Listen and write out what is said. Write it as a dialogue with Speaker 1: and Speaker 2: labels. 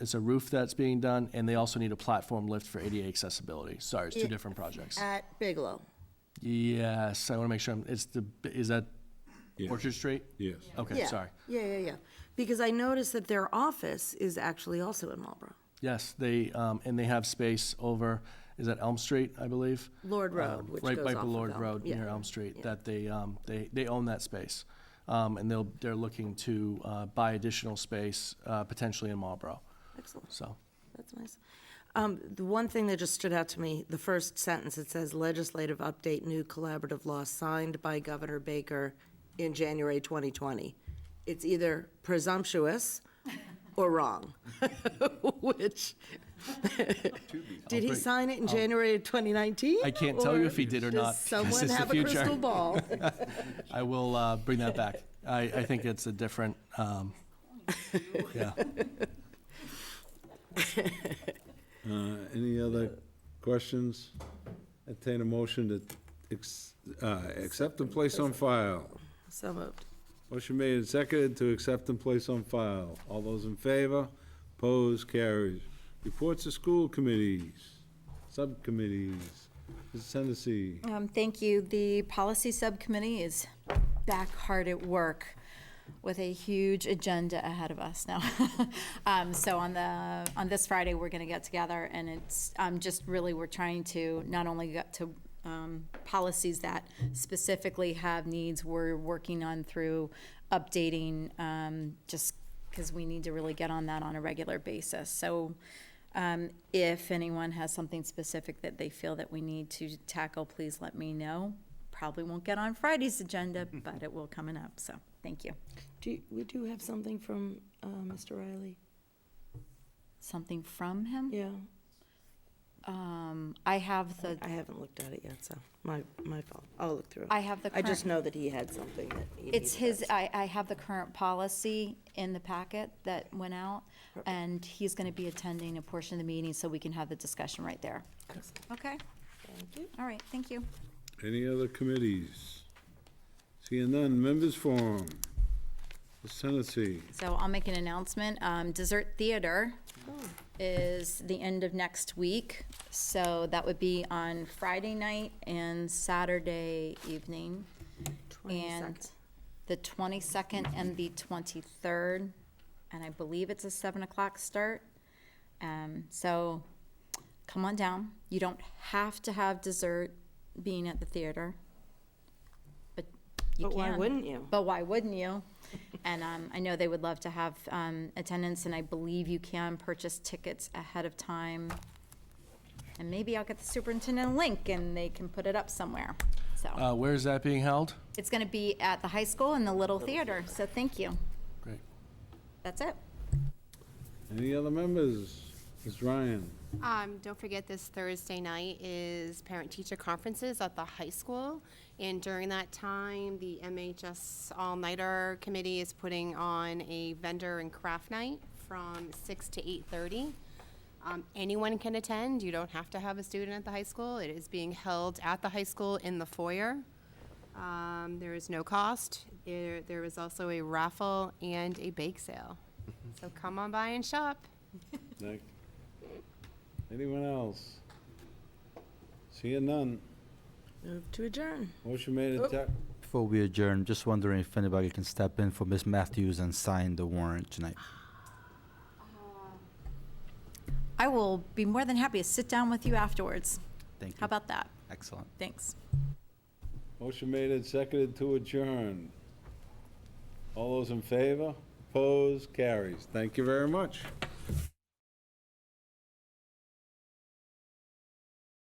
Speaker 1: it's a roof that's being done, and they also need a platform lift for ADA accessibility. Sorry, it's two
Speaker 2: Yeah.
Speaker 1: different projects.
Speaker 2: At Bigelow.
Speaker 1: Yes, I want to make sure, I'm- it's the, is that
Speaker 3: Yeah.
Speaker 1: Orchard Street?
Speaker 3: Yes.
Speaker 1: Okay,
Speaker 2: Yeah.
Speaker 1: sorry.
Speaker 2: Yeah, yeah, yeah. Because I noticed that their office is actually also in Marlboro.
Speaker 1: Yes, they, um, and they have space over, is that Elm Street, I believe?
Speaker 2: Lord Road,
Speaker 1: Um,
Speaker 2: which
Speaker 1: Right
Speaker 2: goes
Speaker 1: by
Speaker 2: off of
Speaker 1: Lord
Speaker 2: Elm.
Speaker 1: Road,
Speaker 2: Yeah.
Speaker 1: near Elm Street, that they, um, they, they own that space. Um, and they'll, they're looking to, uh, buy additional space, uh, potentially in Marlboro,
Speaker 2: Excellent.
Speaker 1: so.
Speaker 2: That's nice. Um, The one thing that just stood out to me, the first sentence, it says legislative update, new collaborative law signed by Governor Baker in January 2020. It's either presumptuous or wrong, which, did he
Speaker 1: bring-
Speaker 2: sign it in January of 2019?
Speaker 1: I can't tell you if he did or not.
Speaker 2: Does
Speaker 1: This
Speaker 2: someone
Speaker 1: is the
Speaker 2: have a
Speaker 1: future.
Speaker 2: crystal ball?
Speaker 1: I will, uh, bring that back. I, I think it's a different, um, yeah.
Speaker 3: Uh, Any other questions? Entertain a motion to ex- uh, accept and place on file.
Speaker 2: So moved.
Speaker 3: Motion made and seconded to accept and place on file. All those in favor? Opposed? Carries. Reports to school committees, subcommittees. Mrs. Hennessy,
Speaker 4: Um, Thank you. The policy subcommittee is back hard at work with a huge agenda ahead of us now. Um, So on the, on this Friday, we're going to get together and it's um, just really, we're trying to not only get to um, policies that specifically have needs, we're working on through updating, um, just because we need to really get on that on a regular basis. So um, If anyone has something specific that they feel that we need to tackle, please let me know. Probably won't get on Friday's agenda, but it will coming up, so, thank you.
Speaker 2: Do, you- we do have something from uh, Mr. Riley.
Speaker 4: Something from him?
Speaker 2: Yeah,
Speaker 4: I have the,
Speaker 2: I haven't looked at it yet, so my, my fault. I'll look through it.
Speaker 4: I have the
Speaker 2: I just
Speaker 4: current-
Speaker 2: know that he had something that he needed.
Speaker 4: it's his, I, I have the current policy in the packet that went out, and he's gonna be attending a portion of the meeting, so we can have the discussion right there. Okay? Thank
Speaker 2: you.
Speaker 4: All right, thank you.
Speaker 3: any other committees? Seeing none, members forum. Mrs. Hennessy,
Speaker 4: So I'll make an announcement. Um, Dessert Theater
Speaker 2: Oh,
Speaker 4: is the end of next week. So that would be on Friday night and Saturday evening. And the 22nd and the 23rd. And I believe it's a 7 o'clock start. Um, So come on down. You don't have to have dessert being at the theater. But you
Speaker 2: But
Speaker 4: can.
Speaker 2: why wouldn't you?
Speaker 4: But why wouldn't you? And um, I know they would love to have um, attendance, and I believe you can purchase tickets ahead of time. And maybe I'll get the superintendent a link, and they can put it up somewhere. So
Speaker 1: Uh, where is that being held?
Speaker 4: it's going to be at the high school in the Little Theater. So thank you.
Speaker 1: Great.
Speaker 4: That's it.
Speaker 3: any other members? Ms. Ryan?
Speaker 5: Um, don't forget this Thursday night is parent-teacher conferences at the high school. And during that time, the MHS All-Nighter Committee is putting on a vendor and craft night from six to eight-thirty. Um, anyone can attend. You don't have to have a student at the high school. It is being held at the high school in the foyer. Um, there is no cost. There, there is also a raffle and a bake sale. So come on by and shop.
Speaker 3: Nick? Anyone else? Seeing none.
Speaker 2: Move to adjourn.
Speaker 3: Motion made and sec-
Speaker 6: Before we adjourn, just wondering if anybody can step in for Miss Matthews and sign the warrant tonight.
Speaker 4: I will be more than happy to sit down with you afterwards.
Speaker 6: Thank you.
Speaker 4: How about that?
Speaker 6: Excellent.
Speaker 4: Thanks.
Speaker 3: motion made and seconded to adjourn. All those in favor? Opposed? Carries. Thank you very much.